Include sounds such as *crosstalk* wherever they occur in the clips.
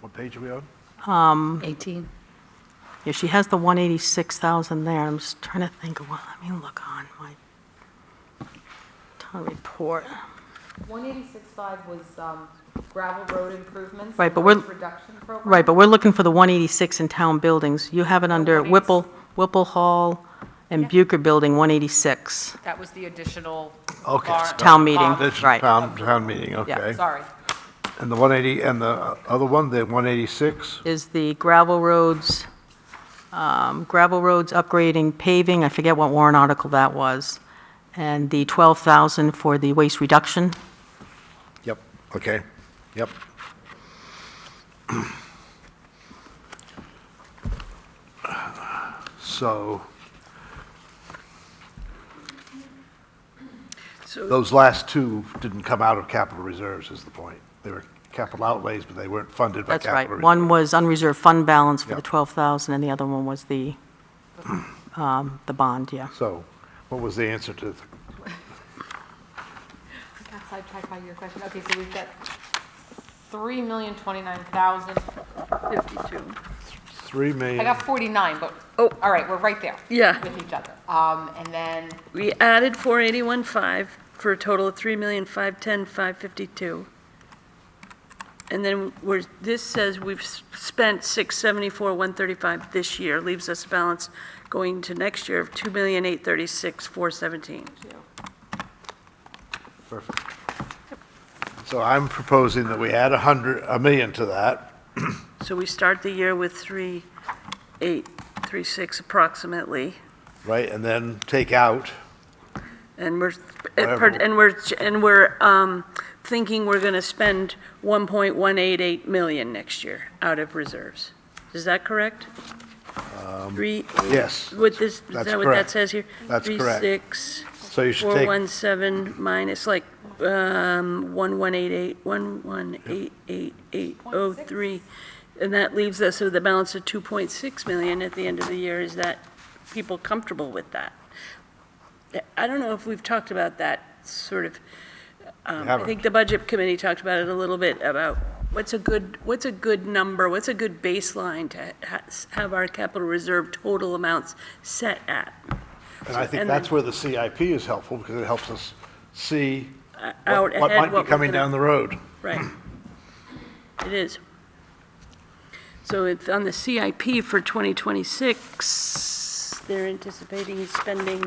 What page are we on? 18. Yeah, she has the 186,000 there. I'm just trying to think of what, let me look on my town report. 186.5 was um, gravel road improvements. Right, and but we're- waste Reduction program. Right, but we're looking for the 186 in town buildings. You have it under Whipple, Whipple Hall and Bucher Building, 186. That was the additional. Okay. bar- Town meeting. bond. This is Right. town, town meeting, Yeah. okay. Sorry. And the 180, and the other one, the 186? Is the gravel roads, um, gravel roads upgrading paving, I forget what warrant article that was, and the 12,000 for the waste reduction. Yep, okay, yep. So, those last two didn't come out of capital reserves is the point. They were capital outlays, but they weren't funded by That's capital. right. reserves. One was unreserved fund balance for Yeah. the 12,000, and the other one was the, um, the bond, yeah. So, what was the answer to, the- I got sidetracked by your question. Okay, so we've got 3,029,052. 3 million? I got 49, but, Oh. all right, we're right there. Yeah. With each other. Um, And then We added 481.5 for a total of 3,510,552. And then we're, this says we've s- spent 674,135 this year, leaves us a balance going to next year of 2,836,417. Perfect. So I'm proposing that we add a 100, a million to that. So we start the year with 3,836 approximately, Right, and then take out, and we're, Whatever. and we're, and we're um, thinking we're going to spend 1.188 million next year out of reserves. Is that correct? Three, yes. with this, is that's that what correct. that says here? That's correct. Three, six, So you should four, take, one, seven, minus like, um, one, one, eight, eight, one, one, eight, eight, eight, oh, three. And that leaves us with a balance of 2.6 million at the end of the year. Is that, people comfortable with that? I don't know if we've talked about that sort of, um, I haven't. think the budget committee talked about it a little bit, about what's a good, what's a good number, what's a good baseline to ha- have our capital reserve total amounts set at? and I think and that's then- where the CIP is helpful, because it helps us see out what what ahead, might what be we're coming gonna- down the road. *clears throat* Right. It is. So it's on the CIP for 2026, they're anticipating spending,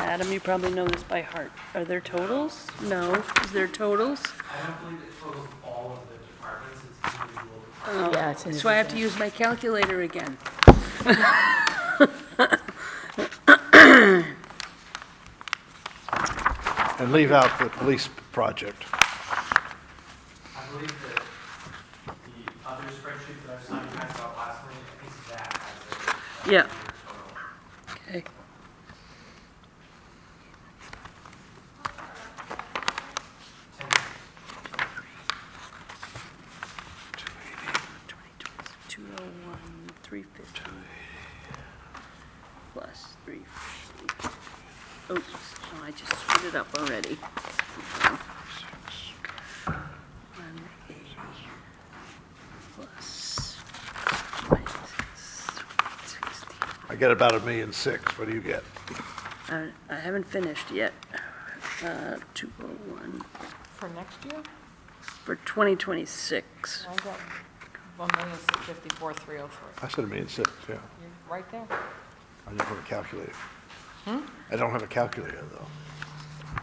Adam, you probably know this by heart. Are there totals? No. Is there totals? I don't believe it totals all of the departments, it's individual. Yeah, it's in So I have to use my calculator again. And leave out the police project. I believe that the other spreadsheet that I was talking about last week, I think that has Yeah. a total. Okay. Two oh one, three fifty. Plus three fifty. Oops, no, I just screwed it up already. One eighty. Plus. minus sixty. I get about a million six, what do you get? I I haven't finished yet. Uh, 201 for next year, for 2026. I got 1,654,303. I said a million six, yeah. You're right there. I don't have a calculator. Hmm? I don't have a calculator, though.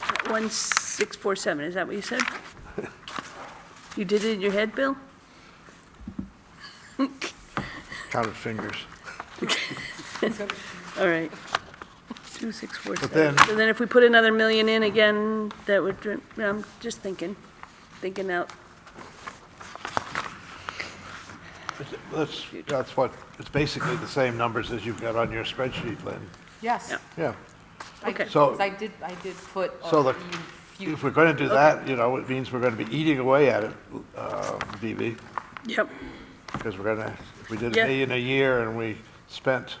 That 1647, is that what you said? You did it in your head, Bill? Counted fingers. All right. But 2647. then- So then if we put another million in again, that would, dri- I'm just thinking, thinking out. That's, that's what, it's basically the same numbers as you've got on your spreadsheet, Lynn. Yes. Yeah. Yeah. I did- Okay. So- Because I did, I did put. a So the- few- If we're going to do that, you know, it means we're going to be eating away at it, uh, BB, Yep. because we're going to, if we did Yeah. a million a year and we spent